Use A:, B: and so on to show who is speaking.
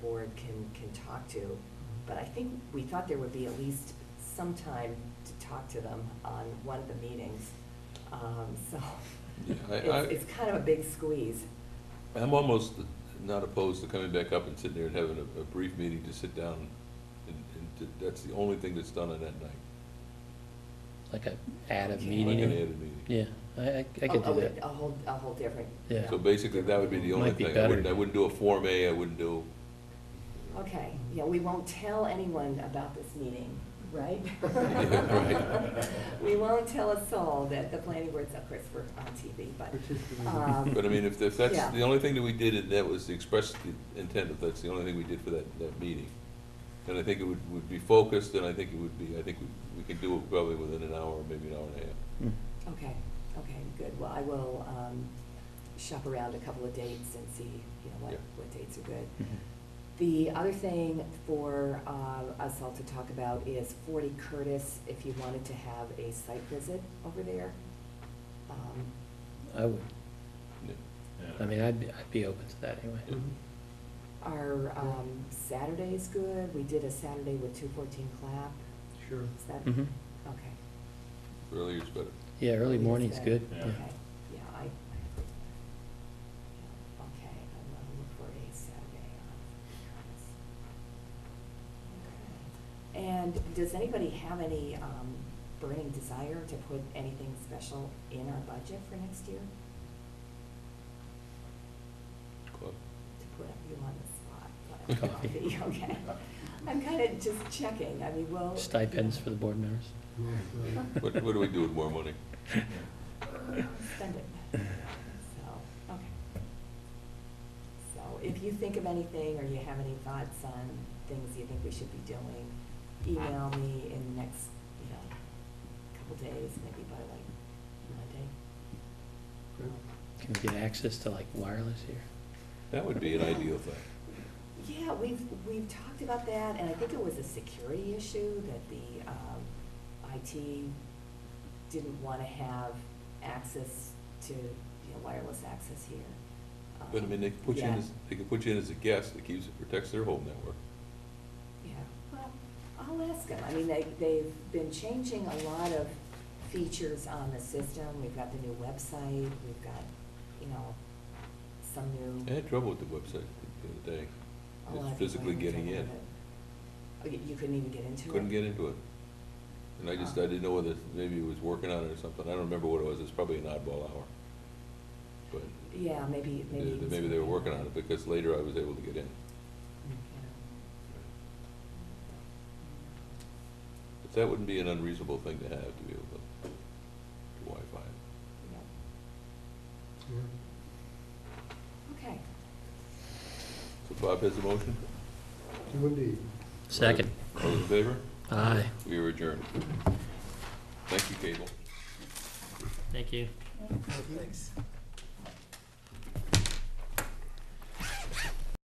A: can talk to, but I think we thought there would be at least some time to talk to them on one of the meetings. Um, So
B: Yeah, I- I-
A: it's, it's kind of a big squeeze.
B: I'm almost not opposed to coming back up and sitting there and having a, a brief meeting to sit down, and, and to- that's the only thing that's done on that night.
C: like a, add a
A: Okay.
C: meeting.
B: Like an
C: in.
B: added meeting.
C: Yeah, I, I I could
A: A-
C: do
A: a-
C: that.
A: A whole, a whole different.
C: Yeah.
B: So basically, that would be the only
C: Might be
B: thing. I wouldn't, I
C: better.
B: wouldn't do a Form A, I wouldn't do,
A: Okay, yeah, we won't tell anyone about this meeting, right?
B: Yeah,
D: right.
A: We won't tell a soul that the planning board's, of course, we're on TV, but. um,
B: but I mean, if, if that's,
A: yeah.
B: the only thing that we did, and that was the express intent, if that's the only thing we did for that, that meeting. And I think it would, would be focused, and I think it would be, I think we, we could do it probably within an hour, maybe an hour and a half.
C: Mm.
A: Okay, okay, good. Well, I will um, shop around a couple of dates and see, you know, what,
B: Yeah.
A: what dates are good.
C: Mhm.
A: The other thing for uh, us all to talk about is 40 Curtis, if you wanted to have a site visit over there. Um,
C: I would,
B: Yeah.
C: I mean, I'd, be I'd be open to that anyway.
B: Yeah.
A: Are um, Saturdays good? We did a Saturday with 214 Clap.
D: Sure.
A: Is that,
C: Mhm.
A: okay.
B: Earlier's better.
C: Yeah, early
A: Yes,
C: morning's
A: that-
C: good,
D: Yeah.
C: yeah.
A: Okay, yeah, I, I agree. Yeah, Okay, I'm gonna look for a Saturday off. Okay. And does anybody have any, um, burning desire to put anything special in our budget for next year?
B: Claude?
A: To put you on the spot.
C: Coffee.
A: Okay, I'm kinda just checking, I mean, well.
C: Stipends for the board members.
B: What, what do we do with more money?
A: Spend it. So, okay. So if you think of anything or you have any thoughts on things you think we should be doing, email me in the next, you know, couple days, maybe by like Monday.
C: Can we get access to like wireless here?
B: That would be an ideal thing.
A: Yeah, we've, we've talked about that, and I think it was a security issue that the um, IT didn't want to have access to, you know, wireless access here.
B: But I mean, they
A: Um,
B: could put you in
A: yeah.
B: as, they could put you in as a guest, it keeps, it protects their whole network.
A: Yeah, well, I'll ask them. I mean, they, they've been changing a lot of features on the system. We've got the new website, we've got, you know, some
B: I
A: new.
B: had trouble with the website the other day.
A: a lot of people
B: It's physically
A: having
B: getting
A: trouble
B: in.
A: with it. Oh, You you couldn't even get into it?
B: Couldn't get into it. And I just, I didn't know whether, maybe it was working on it or something. I don't remember what it was. It's probably an oddball hour. But
A: Yeah, maybe,
B: they-
A: maybe.
B: they- maybe they were working on it because later I was able to get in. But that wouldn't be an unreasonable thing to have, to be able to, to Wi-Fi. it.
A: Yeah. Okay,
B: So Bob has a motion?
D: Do indeed.
C: Second.
B: All those in favor?
C: Aye.
B: We are adjourned. Thank you, Cable.
C: Thank you.
E: Thanks.